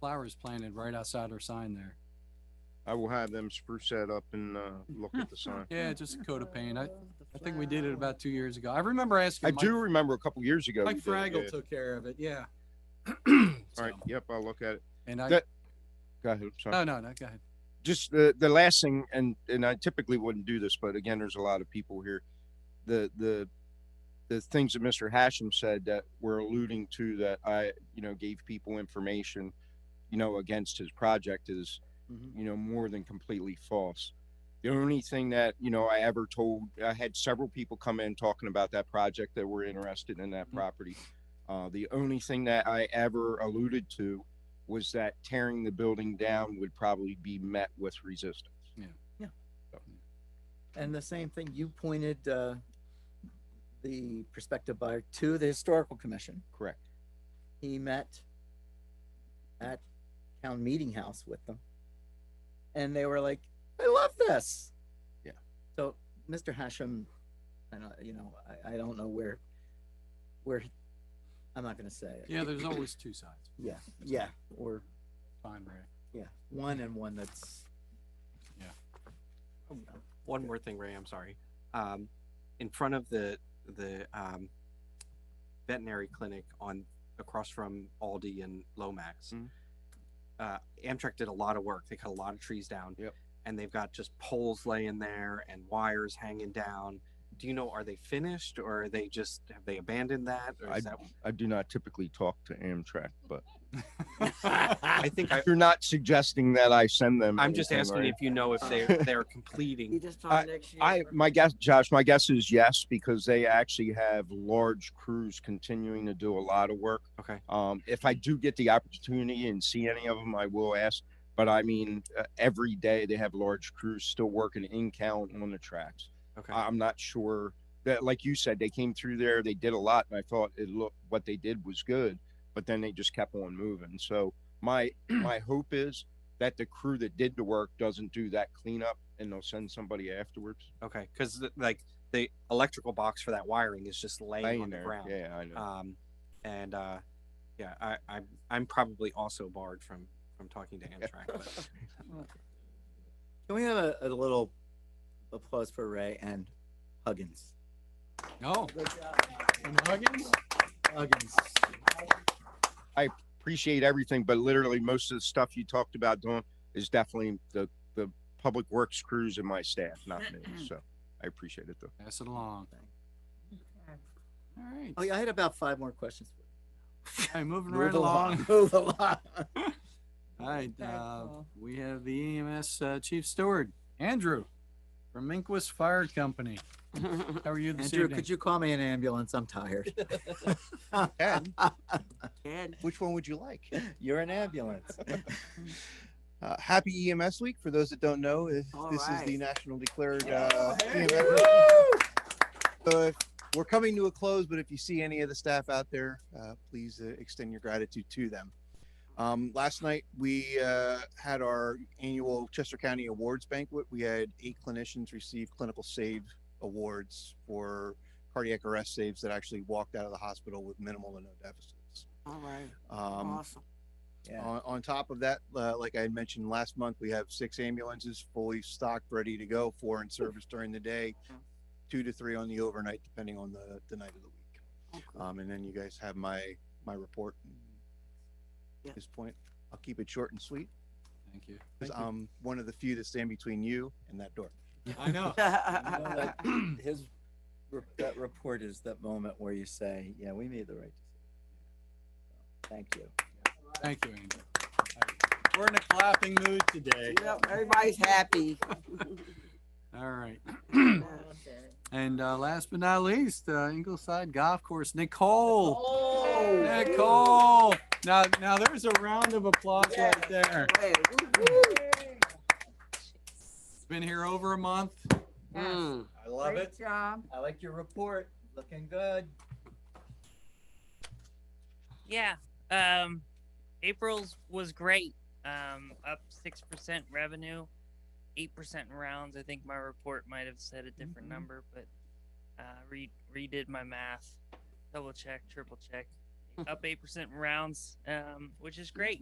flowers planted right outside our sign there. I will have them spruce that up and, uh, Mm, look at the sign. Yeah, just a coat of paint. I, I think we did it about two years ago. I remember asking. I Mike- do remember a couple years ago. Mike you did it, Fraggle yeah. took care of it, yeah. All So, right, yep, I'll look at it. And I, that- Go ahead, I'm no, sorry. no, no, go ahead. just the, the last thing, and, and I typically wouldn't do this, but again, there's a lot of people here. The, the, the things that Mr. Hashem said that were alluding to that I, you know, gave people information, you know, against his project is, Mm-hmm. Mhm. you know, more than completely false. The only thing that, you know, I ever told, I had several people come in talking about that project that were interested in that Mm-hmm. Mhm. property. Uh, the only thing that I ever alluded to was that tearing the building down would probably be met with resistance. And the same thing, you pointed uh, the prospective buyer to the historical commission. Correct. He met at town meeting house with them. And they were like, I love this. Yeah. So Mr. Hashem, I know, you know, I, I don't know where, where, I'm not gonna say it. Yeah, there's always two sides. Yeah, yeah, or, Fine, Ray. yeah, one and one that's. Yeah. Oh, no. One more thing, Ray, I'm sorry. Um, in front of the, the, um, veterinary clinic on, across from Aldi and Lomax. Mhm. Uh, Amtrak did a lot of work. They cut a lot of trees down. Yep. And they've got just poles laying there and wires hanging down. Do you know, are they finished or are they just, have they abandoned that? Or is that? I do not typically talk to Amtrak, but I think I, you're not suggesting that I send them. I'm just anything, asking right? if you know if they, they're completing. just I- next year. I, my guess, Josh, my guess is yes, because they actually have large crews continuing to do a lot of work. Okay. Um, if Mm-hmm. I do get the opportunity and see any of them, I will ask. But I mean, uh, every day they have large crews still working in count on the tracks. Okay. I- I'm not sure that, like you said, they came through there, they did a lot, and I thought it looked what they did was good, but then they just kept on moving. So my my hope is that the crew that did the work doesn't do that cleanup and they'll send somebody afterwards. Okay, because like the electrical box for that wiring is just laying, Laying on the there. ground. Yeah, I know. Um, and uh, yeah, I, I'm I'm probably also barred from from talking to Amtrak. but Can we have a, a little applause for Ray and Huggins? No. And Huggins? Huggins. Appreciate everything, but literally most of the stuff you talked about doing is definitely the the public works crews and my staff, not me. So I appreciate it though. Pass it along. All right. Oh yeah, I had about five more questions. All right, moving Move right along. Move along. All right, uh, Paul. we have the EMS uh, Chief Steward, Andrew from Minquist Fire Company. How are you this Andrew, evening? could you call me an ambulance? I'm tired. Ken, Ted, which one would you like? You're an ambulance. Uh, happy EMS week. For those that don't know, if All this is the right. national declared uh, EMS So if we're coming to a close, but if you see any of the staff out there, uh, please uh, extend your gratitude to them. Um, last night, we uh, had our annual Chester County Awards banquet. We had eight clinicians receive clinical save awards for cardiac arrest saves that actually walked out of the hospital with minimal to no deficits. all right, Um, awesome. Yeah. On, on top of that, uh, like I had mentioned last month, we have six ambulances fully stocked, ready to go, four in service during the day, two to three on the overnight, depending on the, the night of the week. Okay. Um, and then you guys have my, my report. Yeah. At this point, I'll keep it short and sweet, Thank you. 'cause I'm one of the few that stand between you and that door. I know. uh, His re- that report is that moment where you say, "Yeah, we made the right decision." So, Thank you. Thank you, Andrew. All right. We're in a clapping mood today. Yep, everybody's happy. All right. And uh, last but not least, uh, Ingleside Golf Course, Nicole. Oh. Nicole. Now, now there's a round of applause right there. Hey, woo-hoo. It's been here over a month. Mm. I love Great job. I like your report. Looking good. Yeah. Um, April's was great. Um, up six percent revenue, eight percent in rounds. I think my report might have said a different number, but uh, re- redid my math, double check, triple check. up eight percent in rounds, um, which is great.